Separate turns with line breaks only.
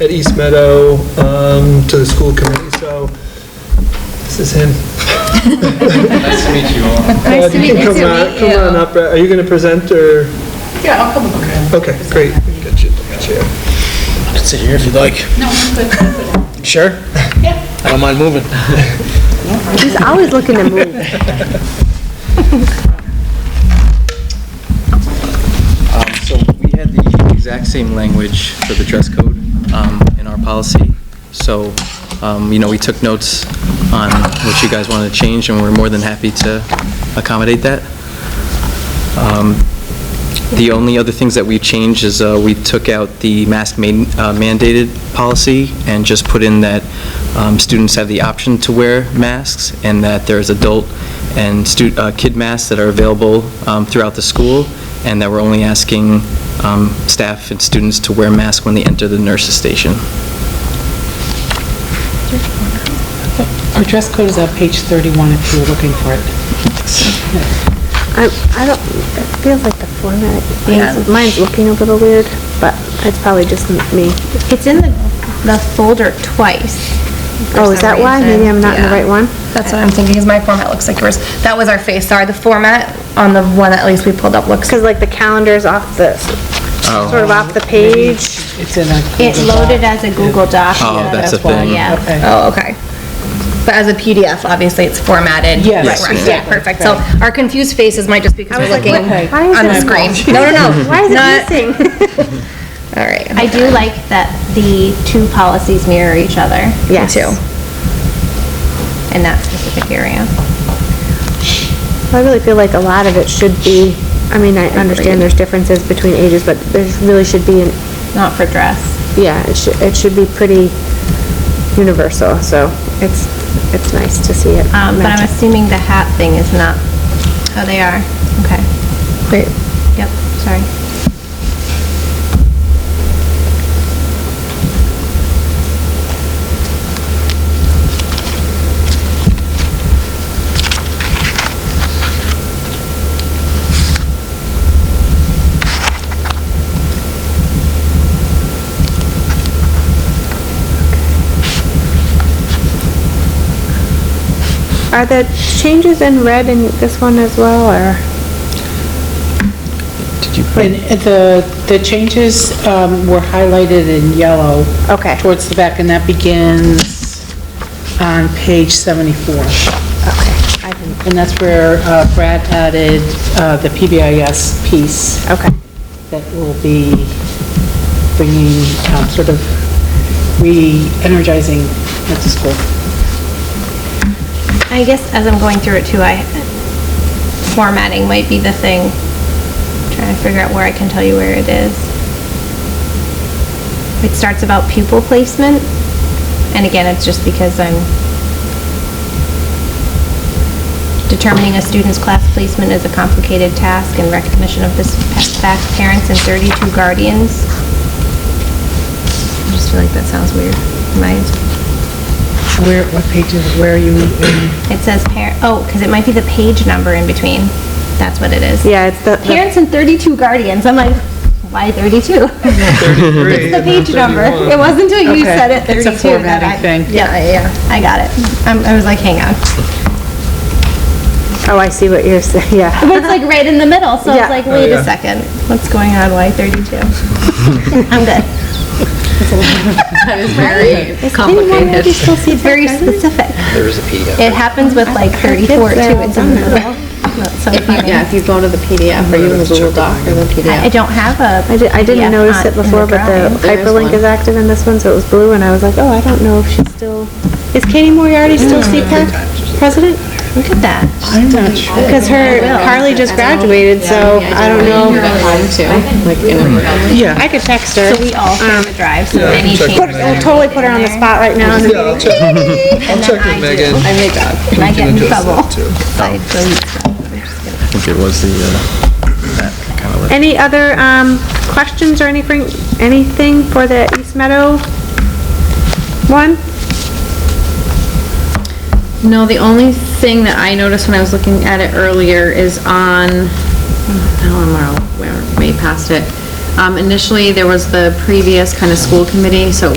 at East Meadow um, to the school committee, so this is him.
Nice to meet you all.
Uh,
Nice to meet
can
you.
come on- Come on up, Brett. are you going to present, or,
Yeah, I'll come over.
okay, great. We can get you the chair.
can sit here if you'd like.
No, I'm good.
Sure? Yeah. I don't mind moving.
He's always looking to move.
Um, So we had the exact same language for the dress code um, in our policy. So, um, you know, we took notes on what you guys wanted to change, and we're more than happy to accommodate that. Um, The only other things that we changed is uh, we took out the mask man- uh, mandated policy and just put in that um, students have the option to wear masks and that there's adult and stu- uh, kid masks that are available um, throughout the school and that we're only asking um, staff and students to wear masks when they enter the nurses' station.
The dress code is on page 31 if you were looking for it.
I, I don't, it feels like the format, mine's- mine's looking a little weird, but it's probably just m- me.
It's in the, the folder twice. for
Oh, is
some
that why? Maybe
reason.
I'm not in the
Yeah.
right one?
That's what I'm thinking, because my format looks like yours. That was our face, sorry, the format on the one at least we pulled up looks.
Because like the calendar's off the,
Oh.
Oh.
sort of off the page.
It's in a
It
Google Doc.
loaded as a Google Doc.
Oh,
Yeah.
that's a
why,
thing.
Yeah.
Okay.
Oh, okay. But as a PDF, obviously, it's formatted.
Yes,
Right, right, yeah,
exactly,
Perfect. So our confused faces might just be because we're
was like,
looking
what-
why is
on
it
the
small?
screen. No, no, no.
Why is
Not-
it missing?
All right.
I do like that the two policies mirror each other.
Me
Yes.
too. In that specific area.
Um,
I really feel like a lot of it should be, I mean, I understand there's differences between ages, but there really should be an,
Not for dress.
yeah, it should, it should be pretty universal, so it's, it's nice to see it.
Um, But
match
I'm
up.
assuming the hat thing is not how they are. Okay.
Wait,
Yep, sorry.
Are the changes in red in this one as well, or?
Did you?
And the, the changes um, were highlighted in yellow.
Okay.
Towards the back, and that begins on page 74.
Okay, I didn't,
And that's where uh, Brad added uh, the PBIS piece
okay.
that will be bringing, um, sort of re-energizing at the school.
I guess as I'm going through it too, I, formatting might be the thing. Trying to figure out where I can tell you where it is. It starts about pupil placement. And again, it's just because I'm determining a student's class placement is a complicated task in recognition of this fact, parents and 32 guardians. I just feel like that sounds weird. Am I
Where, what page is, where are you in?
it says par, oh, because it might be the page number in between. That's what it is.
Yeah, it's the- the-
Parents and 32 guardians. I'm like, why 32? It's the page number. It wasn't until you
Okay.
said it,
It's
32.
a
that
formatting
I-
thing.
Yeah, yeah, I got it. I'm- I was like, hang on.
oh, I see what you're saying, yeah.
But it's like right in the middle, so
Yeah.
it's like,
Oh,
wait
yeah.
a second. What's going on? Why 32? I'm good.
Is anyone maybe still see
It's very
that?
specific.
There is a PDF.
It happens with like 34 too. It's in the middle. That's so funny.
Yeah, if you go to the PDF, are you in the Google Doc or the
I I
PDF?
don't have a.
I didn't, I
PDF
didn't notice it
on- Uh, in the
before, but the
drawing.
There is
hyperlink
one.
is active in this one, so it was blue, and I was like, oh, I don't know if she's still, is Katie Moriarty still CPAC president?
Look at that.
I'm not sure.
Because her, Carly just graduated, so I don't know.
Time too, like in
Yeah.
I could text her.
So we all can drive, so
Yeah,
any
check with
changes. are
I'll totally put her on the
in there.
spot right now. in the
Yeah, I'll
meeting.
check- I'll
And
check
then
with
I do.
Megan.
I make up.
And I get in
adjust that
trouble.
too.
So I delete stuff.
I think it was the, uh, that kind of list.
Any other, um, questions or anything, anything for the East Meadow one?
No, the only thing that I noticed when I was looking at it earlier is on, I don't know where, way past it. Um, initially, there was the previous kind of school committee, so it was